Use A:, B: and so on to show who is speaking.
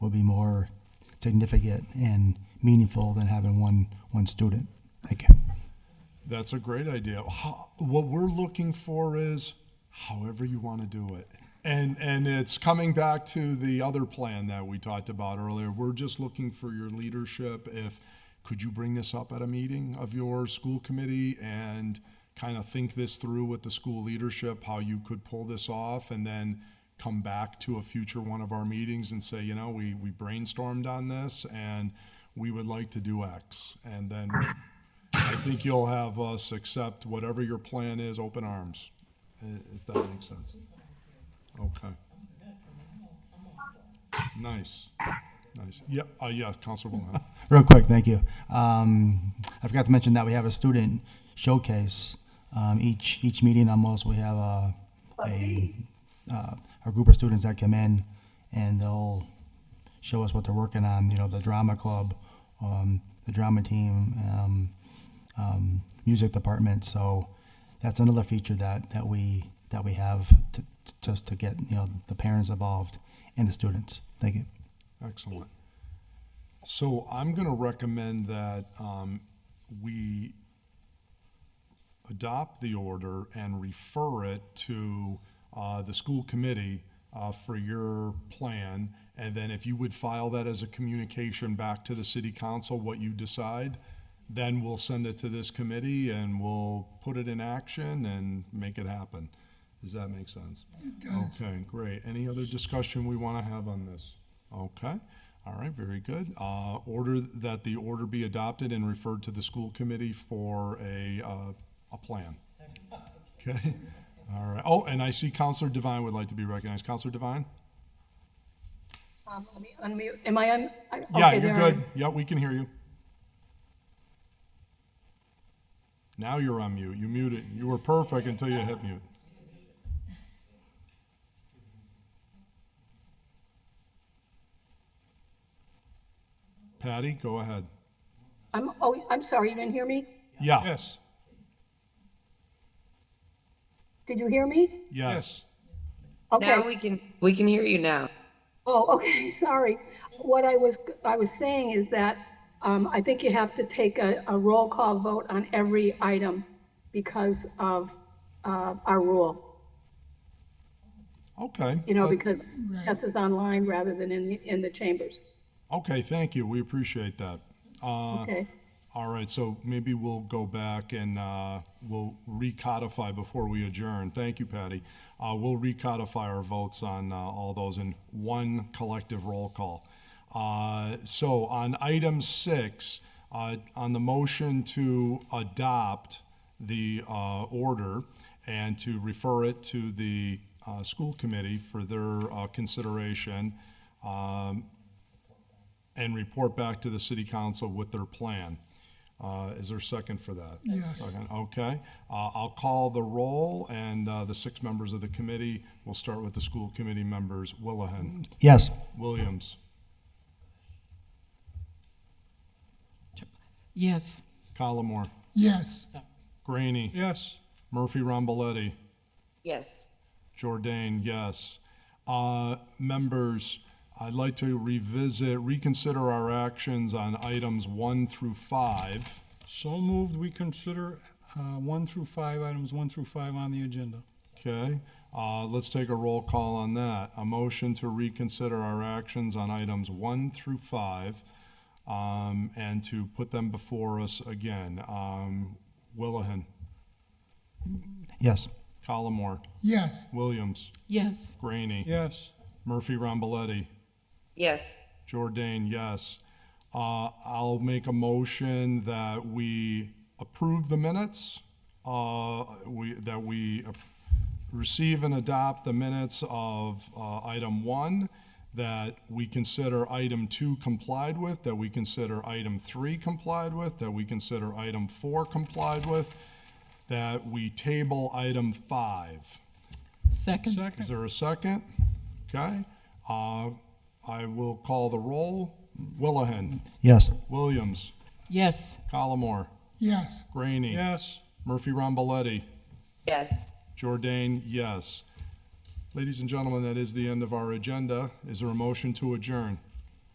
A: will be more significant and meaningful than having one, one student. Thank you.
B: That's a great idea. How, what we're looking for is however you want to do it. And, and it's coming back to the other plan that we talked about earlier. We're just looking for your leadership. If could you bring this up at a meeting of your school committee and kind of think this through with the school leadership, how you could pull this off, and then come back to a future one of our meetings and say, you know, we, we brainstormed on this and we would like to do X. And then I think you'll have us accept whatever your plan is, open arms, i- if that makes sense. Okay. Nice, nice. Yeah, uh, yeah, Counselor Wilhelm.
A: Real quick, thank you. Um, I forgot to mention that we have a student showcase. Um, each, each meeting almost, we have a, a, uh, a group of students that come in and they'll show us what they're working on, you know, the drama club, um, the drama team, um, um, music department. So that's another feature that, that we, that we have to, to- just to get, you know, the parents involved and the students. Thank you.
B: Excellent. So I'm going to recommend that um, we adopt the order and refer it to uh, the school committee uh, for your plan. And then if you would file that as a communication back to the city council, what you decide, then we'll send it to this committee and we'll put it in action and make it happen. Does that make sense? Okay, great. Any other discussion we want to have on this? Okay, all right, very good. Uh, Order, that the order be adopted and referred to the school committee for a, uh, a plan. Okay, all right. Oh, and I see Counselor Devine would like to be recognized. Counselor Devine?
C: Um, let me unmute. Am I on? I-
B: Yeah,
C: okay,
B: you're
C: there I am.
B: good. Yeah, we can hear you. Now you're on mute. You muted. You were perfect until you hit mute. Patty, go ahead.
C: I'm, oh, I'm sorry, you didn't hear me?
B: Yeah.
D: Yes,
C: Did you hear me?
B: Yes.
C: Okay.
E: Now we can, we can hear you now.
C: Oh, okay, sorry. What I was, I was saying is that um, I think you have to take a, a roll call vote on every item because of uh, our rule.
B: Okay.
C: You know,
B: Uh,
C: because Tess is online rather than in, the- in the chambers.
B: Okay, thank you. We appreciate that. Uh,
C: Okay.
B: All right, so maybe we'll go back and uh, we'll recodify before we adjourn. Thank you, Patty. Uh, We'll recodify our votes on uh, all those in one collective roll call. Uh, So on item six, uh, on the motion to adopt the uh, order and to refer it to the uh, school committee for their uh, consideration, um, and report back to the city council with their plan. Uh, Is there a second for that? Second, Okay, Uh, I'll call the roll, and uh, the six members of the committee, we'll start with the school committee members, Willahen,
A: Yes.
B: Williams,
F: Yes.
B: Collmore,
G: Yes,
B: Graney,
D: yes,
B: Murphy Ramboletti,
E: Yes,
B: Jordan, yes. Uh, Members, I'd like to revisit, reconsider our actions on items one through five.
D: so moved, we consider uh, one through five, items one through five on the agenda.
B: Okay, uh, let's take a roll call on that. A motion to reconsider our actions on items one through five, um, and to put them before us again. Um, Willihan,
A: Yes.
B: Collmore,
G: yes,
B: Williams,
F: Yes.
B: Graney,
D: Yes,
B: Murphy Ramboletti,
E: yes,
B: Jordan, yes. Uh, I'll make a motion that we approve the minutes, uh, we, that we uh, receive and adopt the minutes of, uh, item one, that we consider item two complied with, that we consider item three complied with, that we consider item four complied with, that we table item five.
F: Second?
B: Is
D: second,
B: there a second? Okay. Uh, I will call the roll. Willahen,
A: Yes.
B: Williams,
F: Yes.
B: Collmore,
G: yes,
B: Graney,
D: yes,
B: Murphy Ramboletti,
E: yes.
B: Jordan, yes. Ladies and gentlemen, that is the end of our agenda. Is there a motion to adjourn?